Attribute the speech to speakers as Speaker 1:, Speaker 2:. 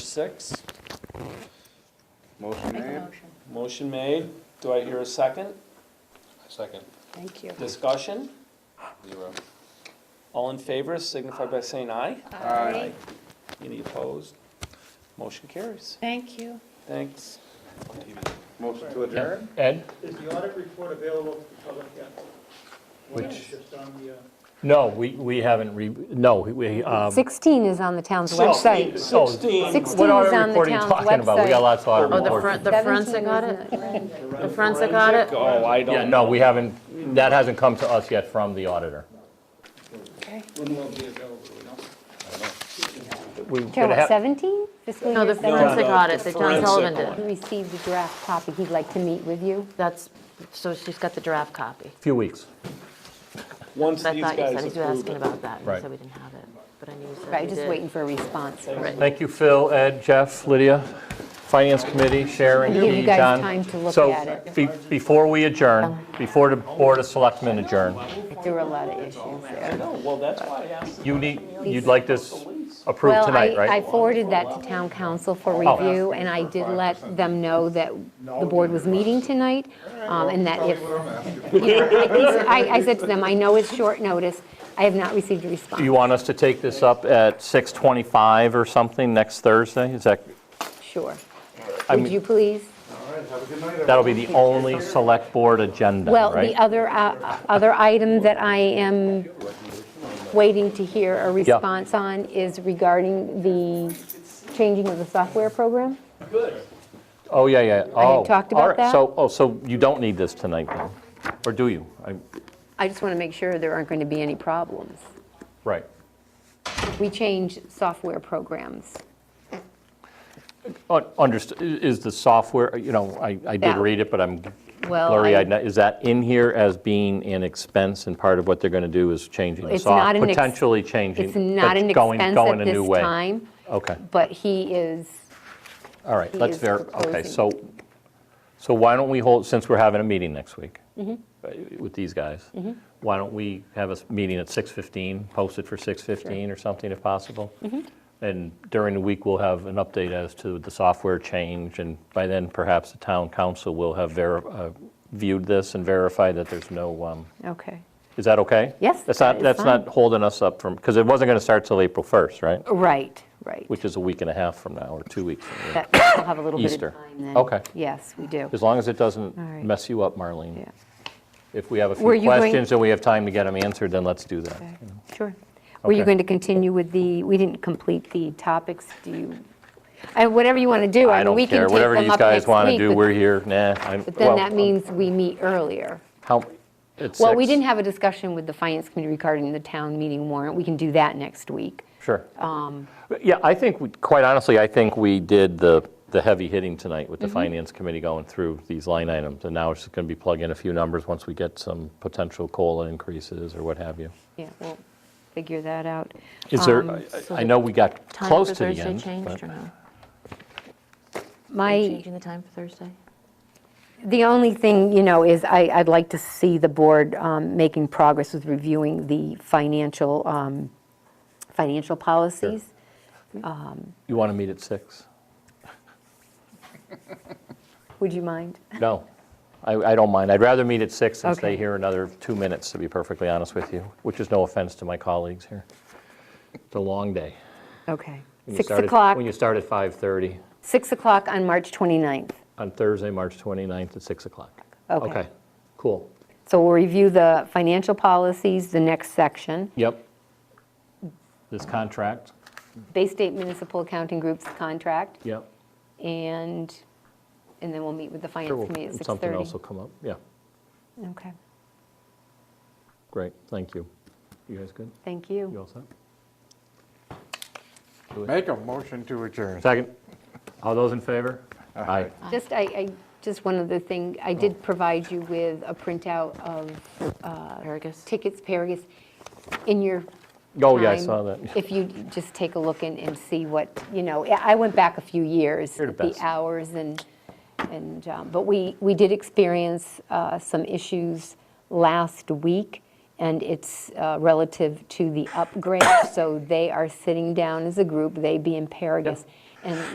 Speaker 1: six.
Speaker 2: Motion
Speaker 3: Make a
Speaker 2: made?
Speaker 3: motion.
Speaker 1: Motion made. Do I hear a second?
Speaker 4: Second,
Speaker 3: Thank you.
Speaker 1: Discussion?
Speaker 4: zero.
Speaker 1: All in favor signify by saying aye.
Speaker 2: Aye.
Speaker 1: Any opposed? Motion carries.
Speaker 3: Thank you.
Speaker 1: Thanks.
Speaker 2: Motion to adjourn?
Speaker 5: Ed?
Speaker 6: Is the audit report available to the public yet? One that's
Speaker 5: Which-
Speaker 6: Just on the, uh,
Speaker 5: No, we, we haven't re, no, we, um.
Speaker 7: 16 is on the town's website.
Speaker 5: so-
Speaker 1: 16.
Speaker 7: Sixteen
Speaker 5: What
Speaker 7: is
Speaker 5: audit
Speaker 7: on the
Speaker 5: report are you
Speaker 7: town's
Speaker 5: talking about? We got
Speaker 7: website.
Speaker 5: lots of audit
Speaker 8: Oh, the
Speaker 5: reports.
Speaker 8: front, the
Speaker 7: 17
Speaker 8: forensic audit?
Speaker 7: isn't it?
Speaker 8: The forensic audit?
Speaker 1: Oh, I
Speaker 5: Yeah,
Speaker 1: don't
Speaker 5: no,
Speaker 1: know.
Speaker 5: we haven't, that hasn't come to us yet from the auditor.
Speaker 6: when will it be available, you know?
Speaker 5: We
Speaker 7: Care
Speaker 5: would
Speaker 7: what,
Speaker 5: have,
Speaker 7: 17? Fiscal
Speaker 8: No,
Speaker 7: year
Speaker 8: the
Speaker 7: 17?
Speaker 8: forensic
Speaker 1: no,
Speaker 8: audit
Speaker 1: the
Speaker 8: that John
Speaker 1: forensic
Speaker 8: Sullivan
Speaker 7: He
Speaker 8: did.
Speaker 7: received the draft copy. He'd like to meet with you.
Speaker 8: That's, so she's got the draft copy.
Speaker 5: few weeks.
Speaker 1: Once
Speaker 8: But I
Speaker 1: these
Speaker 8: thought you said
Speaker 1: guys
Speaker 8: he was
Speaker 1: approve
Speaker 8: asking
Speaker 1: it.
Speaker 8: about that, and you
Speaker 5: Right.
Speaker 8: said we didn't have it, but I knew you said we
Speaker 7: Right, just
Speaker 8: did.
Speaker 7: waiting for a response.
Speaker 5: Thank you, Phil, Ed, Jeff, Lydia, Finance Committee, Sharon,
Speaker 7: Give you
Speaker 5: Key,
Speaker 7: guys
Speaker 5: John.
Speaker 7: time to look at it.
Speaker 5: So be- before we adjourn, before the Board of Selectmen adjourn,
Speaker 7: There were a lot of issues there.
Speaker 1: No, well, that's why I asked.
Speaker 5: you need, you'd like this approved
Speaker 7: Well, I
Speaker 5: tonight,
Speaker 7: I
Speaker 5: right? Oh.
Speaker 7: forwarded that to town council for review, and I did let them know that the board was meeting tonight, um, and that if,
Speaker 2: What I'm asking.
Speaker 7: you know, I think- I I said to them, I know it's short notice. I have not received a response.
Speaker 5: Do you want us to take this up at 6:25 or something next Thursday? Is that,
Speaker 7: Sure.
Speaker 5: I
Speaker 7: Would
Speaker 5: mean-
Speaker 7: you please?
Speaker 2: All right, have a good night, everyone.
Speaker 5: that'll be the only Select Board agenda,
Speaker 7: Well,
Speaker 5: right?
Speaker 7: the other, uh, other item that I am waiting to hear a response on is regarding the changing of the software program.
Speaker 5: Oh, yeah, yeah.
Speaker 7: I had
Speaker 5: Oh,
Speaker 7: talked
Speaker 5: all
Speaker 7: about
Speaker 5: right.
Speaker 7: that.
Speaker 5: So, oh, so you don't need this tonight, then? Or do you? I-
Speaker 7: I just want to make sure there aren't going to be any problems.
Speaker 5: Right.
Speaker 7: We change software programs.
Speaker 5: Understood, Oh, is the software, you know, I I did
Speaker 7: Yeah.
Speaker 5: read it, but I'm
Speaker 7: Well,
Speaker 5: blurry-eyed.
Speaker 7: I-
Speaker 5: now. Is that in here as being an expense, and part of what they're going to do is changing the
Speaker 7: It's
Speaker 5: software?
Speaker 7: not an ex-
Speaker 5: Potentially changing?
Speaker 7: it's not
Speaker 5: but
Speaker 7: an
Speaker 5: going-
Speaker 7: expense
Speaker 5: going
Speaker 7: at
Speaker 5: a new
Speaker 7: this
Speaker 5: way.
Speaker 7: time,
Speaker 5: Okay,
Speaker 7: but he is,
Speaker 5: all right,
Speaker 7: He
Speaker 5: let's
Speaker 7: is
Speaker 5: ver, okay,
Speaker 7: proposing.
Speaker 5: so, so why don't we hold, since we're having a meeting next week
Speaker 7: Mm-hmm.
Speaker 5: uh, with these guys, why don't we have a s- meeting at 6:15, post it for 6:15 or something if possible?
Speaker 7: Mm-hmm.
Speaker 5: And during the week, we'll have an update as to the software change, and by then, perhaps the town council will have veri- uh, viewed this and verified that there's no, um,
Speaker 7: okay.
Speaker 5: is that okay?
Speaker 7: Yes,
Speaker 5: That's
Speaker 7: that
Speaker 5: not,
Speaker 7: is
Speaker 5: that's
Speaker 7: fine.
Speaker 5: not holding us up from, because it wasn't going to start till April 1st, right?
Speaker 7: Right, right.
Speaker 5: Which is a week and a half from now, or two weeks from now.
Speaker 7: That, we'll have a little bit
Speaker 5: Easter.
Speaker 7: of time then.
Speaker 5: Okay.
Speaker 7: Yes, we do.
Speaker 5: As long as it doesn't
Speaker 7: All right.
Speaker 5: mess you up, Marlene.
Speaker 7: Yeah,
Speaker 5: If we have a
Speaker 7: Were
Speaker 5: few
Speaker 7: you going-
Speaker 5: questions and we have time to get them answered, then let's do that.
Speaker 7: okay, sure. Were you
Speaker 5: Okay.
Speaker 7: going to continue with the, we didn't complete the topics, do you? I- Whatever you want to do, I
Speaker 5: I
Speaker 7: mean,
Speaker 5: don't
Speaker 7: we can
Speaker 5: care,
Speaker 7: take them up
Speaker 5: whatever these guys
Speaker 7: next
Speaker 5: want to
Speaker 7: week,
Speaker 5: do,
Speaker 7: but-
Speaker 5: we're here, nah. I'm-
Speaker 7: But then
Speaker 5: well,
Speaker 7: that means we meet earlier.
Speaker 5: How, it's
Speaker 7: Well, we
Speaker 5: six.
Speaker 7: didn't have a discussion with the Finance Committee regarding the town meeting warrant. We can do that next week.
Speaker 5: Sure.
Speaker 7: um,
Speaker 5: Yeah, I think, we- quite honestly, I think we did the, the heavy hitting tonight with the
Speaker 7: Mm-hmm.
Speaker 5: Finance Committee going through these line items. And now it's just going to be plug in a few numbers once we get some potential COLA increases or what have you.
Speaker 7: Yeah, we'll figure that out.
Speaker 5: Is there,
Speaker 7: Um,
Speaker 5: I-
Speaker 8: so
Speaker 5: I
Speaker 8: the
Speaker 5: know we got
Speaker 8: Time
Speaker 5: close
Speaker 8: for
Speaker 5: to the end.
Speaker 8: Thursday changed
Speaker 5: but-
Speaker 8: or no? Are you
Speaker 7: My,
Speaker 8: changing the time for Thursday?
Speaker 7: the only thing, you know, is I, I'd like to see the board um, making progress with reviewing the financial, um, financial policies.
Speaker 5: You want to meet at six?
Speaker 7: Would you mind?
Speaker 5: No, I, I don't mind. I'd rather meet at six and stay
Speaker 7: Okay.
Speaker 5: here another two minutes, to be perfectly honest with you, which is no offense to my colleagues here. It's a long day.
Speaker 7: Okay.
Speaker 5: When you
Speaker 7: 6
Speaker 5: start at-
Speaker 7: o'clock,
Speaker 5: When you start at 5:30
Speaker 7: 6 o'clock on March 29th.
Speaker 5: on Thursday, March 29th at 6 o'clock.
Speaker 7: Okay.
Speaker 5: Cool.
Speaker 7: So we'll review the financial policies, the next section,
Speaker 5: Yep. This contract,
Speaker 7: Bay State Municipal Accounting Group's contract.
Speaker 5: yep.
Speaker 7: And, and then we'll meet with the
Speaker 5: Sure,
Speaker 7: finance
Speaker 5: we'll-
Speaker 7: committee at 6:30.
Speaker 5: Something else will come up, yeah.
Speaker 7: Okay,
Speaker 5: Great, thank you. You guys good?
Speaker 7: thank
Speaker 5: You
Speaker 7: you.
Speaker 5: all set?
Speaker 2: Make a motion to adjourn.
Speaker 5: Second. All those in favor? Aye.
Speaker 7: Just, I, I, just one other thing, I
Speaker 5: Oh.
Speaker 7: did provide you with a printout of
Speaker 8: Uh, Paragus?
Speaker 7: tickets, Paragus, in your
Speaker 5: Oh, yeah, I
Speaker 7: time,
Speaker 5: saw that.
Speaker 7: If you just take a look and, and see what, you know, I I went back a few years.
Speaker 5: You're the
Speaker 7: at
Speaker 5: best.
Speaker 7: hours and, and, um, but we, we did experience uh, some issues last week, and it's uh, relative to the upgrade. So they are sitting down as a group, they being Paragus, and